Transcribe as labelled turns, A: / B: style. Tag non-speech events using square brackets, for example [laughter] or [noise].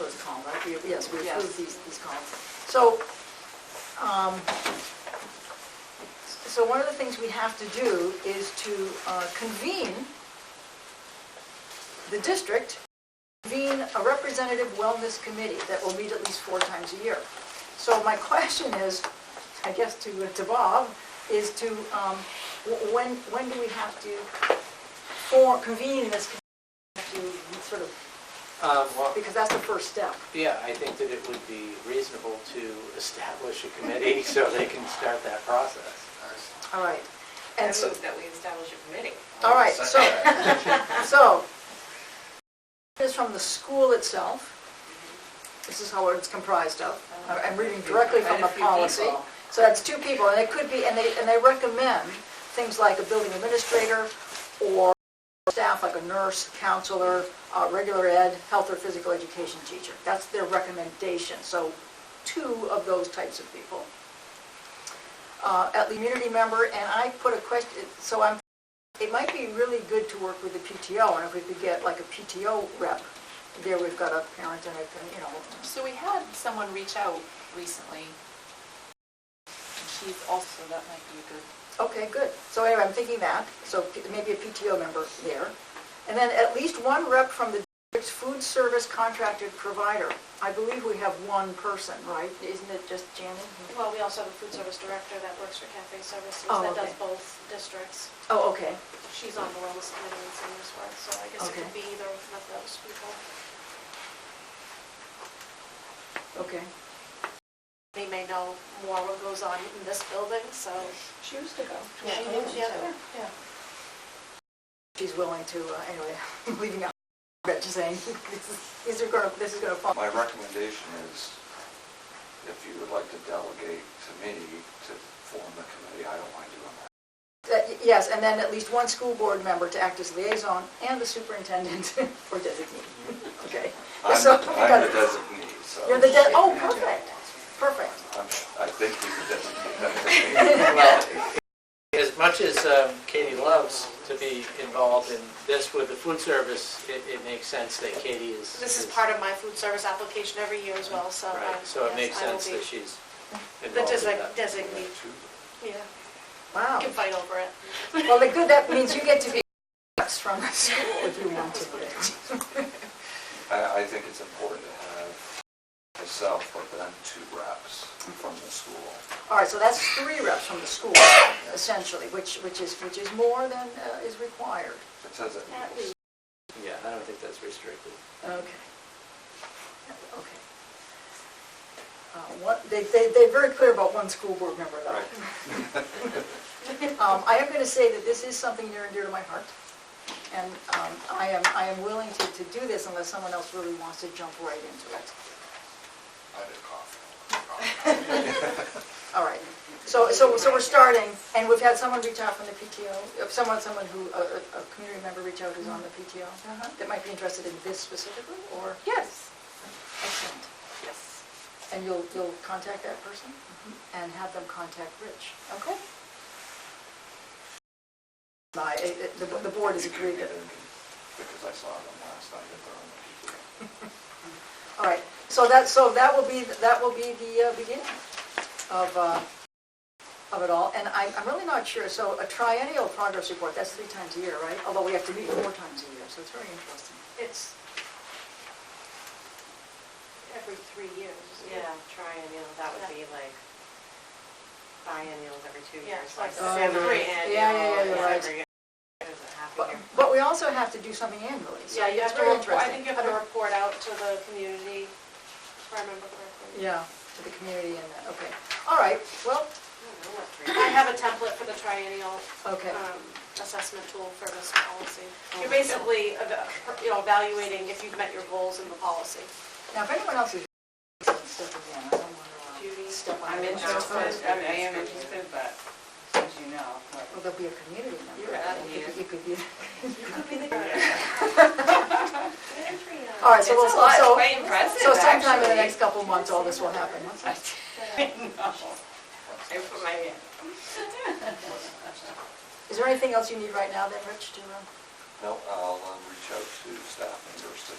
A: we, yes, we
B: Yes.
A: approved these, these columns. So, um, so one of the things we have to do is to uh, convene the district, convene a representative wellness committee that will meet at least four times a year. So my [laughs] question is, I guess to, to Bob, is to, um, wh- when, when do we have to for, convene this committee to sort of
C: Um, Well,
A: because that's the first step.
C: yeah, I think that it would be reasonable to establish a committee [laughs] so they can start that process.
A: All right.
B: I
A: And so,
B: move that we establish a committee.
A: all right, so, so, [laughs] this is from the school itself. This is how it's comprised of. I'm reading directly from the
B: Quite a few
A: policy.
B: people.
A: So that's two people, and it could be, and they, and they recommend things like a building administrator or staff like a nurse, counselor, uh, regular ed, health or physical education teacher. That's their recommendation. So two of those types of people. uh, at the community member, and I put a question, so I'm, it might be really good to work with the PTO, and if we could get like a PTO rep, there we've got a parent and a, you know,
D: So we had someone reach out recently. And She's also, that might be a good.
A: okay, good. So anyway, I'm thinking that, so p- maybe a PTO member there. And then at least one rep from the district's food service contracted provider. I believe we have one person, right? Isn't it just Janet?
E: Well, we also have a food service director that works for Cafe Services
A: Oh,
E: that does
A: okay.
E: both districts.
A: Oh, okay.
E: She's on the wellness committee in Somersworth, so I guess it
A: Okay.
E: could be either of those people.
A: Okay.
E: They may know more what goes on in this building, so.
B: She used to go.
E: She knows the other, yeah.
A: She's willing to, uh, anyway, [laughs] I'm leaving out, but just saying, [laughs] this is- these are gonna, this is gonna fall.
F: My recommendation is, if you would like to delegate to me to form the committee, I don't mind doing that.
A: That- Uh, Yes, and then at least one school board member to act as liaison and the superintendent [laughs] or designee. Okay.
F: I'm
A: So-
F: the- I'm the designee, so.
A: You're the, de- oh, perfect, perfect.
F: I'm- I think you could designate that to me.
C: As much as um, Katie loves to be involved in this with the food service, it, it makes sense that Katie is.
E: This is part of my food service application every year as well, so. um,
C: Right, so it
E: yes,
C: makes
E: I will
C: sense
E: be
C: that she's
E: The
C: involved in
E: design-
C: that.
E: designee, yeah.
A: Wow.
E: You can fight over it.
A: Well, the good, that means you get to be [laughs] from the school if you want to.
F: [laughs]
E: [laughs]
F: I, I think it's important to have myself, but then two reps from the school.
A: All right, so that's three reps from the school essentially, which, which is, which is more than uh, is required.
F: It says it.
E: At least.
C: Yeah, I don't think that's restricted.
A: Okay. Okay. Uh, What, they, they, they're very clear about one school board member though. [laughs] Um, I am gonna say that this is something near and dear to my heart. And, um, I am, I am willing to, to do this unless someone else really wants to jump right into it.
F: I did cough.
A: [laughs] All right. So, so, so we're starting, and we've had someone reach out from the PTO, uh, someone, someone who, a, a- a community member reach out who's on the PTO that might be interested in this specifically, or?
D: Yes.
A: Excellent.
D: Yes.
A: And you'll, you'll contact that person and have them contact Rich, okay? My, it- it- the, the board has agreed that,
F: Because I saw them last night at their own meeting.
A: all right, so that, so that will be, that will be the uh, beginning of, uh, of it all, and I'm, I'm really not sure, so a triennial progress report, that's three times a year, right? Although we have to meet four times a year, so it's very interesting.
E: It's every three years. isn't it?
B: Yeah, triennial, that would be like biennials every two
E: Yeah,
B: years.
E: it's
B: like
E: like
A: Oh, yeah.
B: Every
A: Yeah,
B: annual.
A: yeah, yeah, you're right.
B: every- There's a half
A: But,
B: year.
A: but we also have to do something annually, so
E: Yeah, you
A: it's
E: have to,
A: very
E: report-
A: interesting.
E: I think you have
A: don't-
E: to report out to the community, if I remember correctly.
A: Yeah, to the community and that, okay. All right, well,
B: I don't know what three-
E: I have a template for the triennial
A: okay.
E: um, assessment tool for this policy. You're
B: Okay.
E: basically, eva- you know, evaluating if you've met your goals in the policy.
A: Now, if anyone else is step again, I don't want to
E: Judy,
A: step on
D: I'm
A: anyone's toes.
D: interested, I mean, I am interested, but as you know, [laughs] but
A: Well, there'll be a community member.
D: You're out of
A: It could-
D: here.
A: It could be, [laughs] all
E: All
A: right, so we'll,
D: It's a lot, it's
A: so,
D: quite impressive,
A: so sometime in the
D: actually.
A: next couple of months, all this will happen.
D: I know. I put my hand.
A: Is there anything else you need right now then, Rich, to, uh,
F: No, I'll um, reach out uh, to staff members to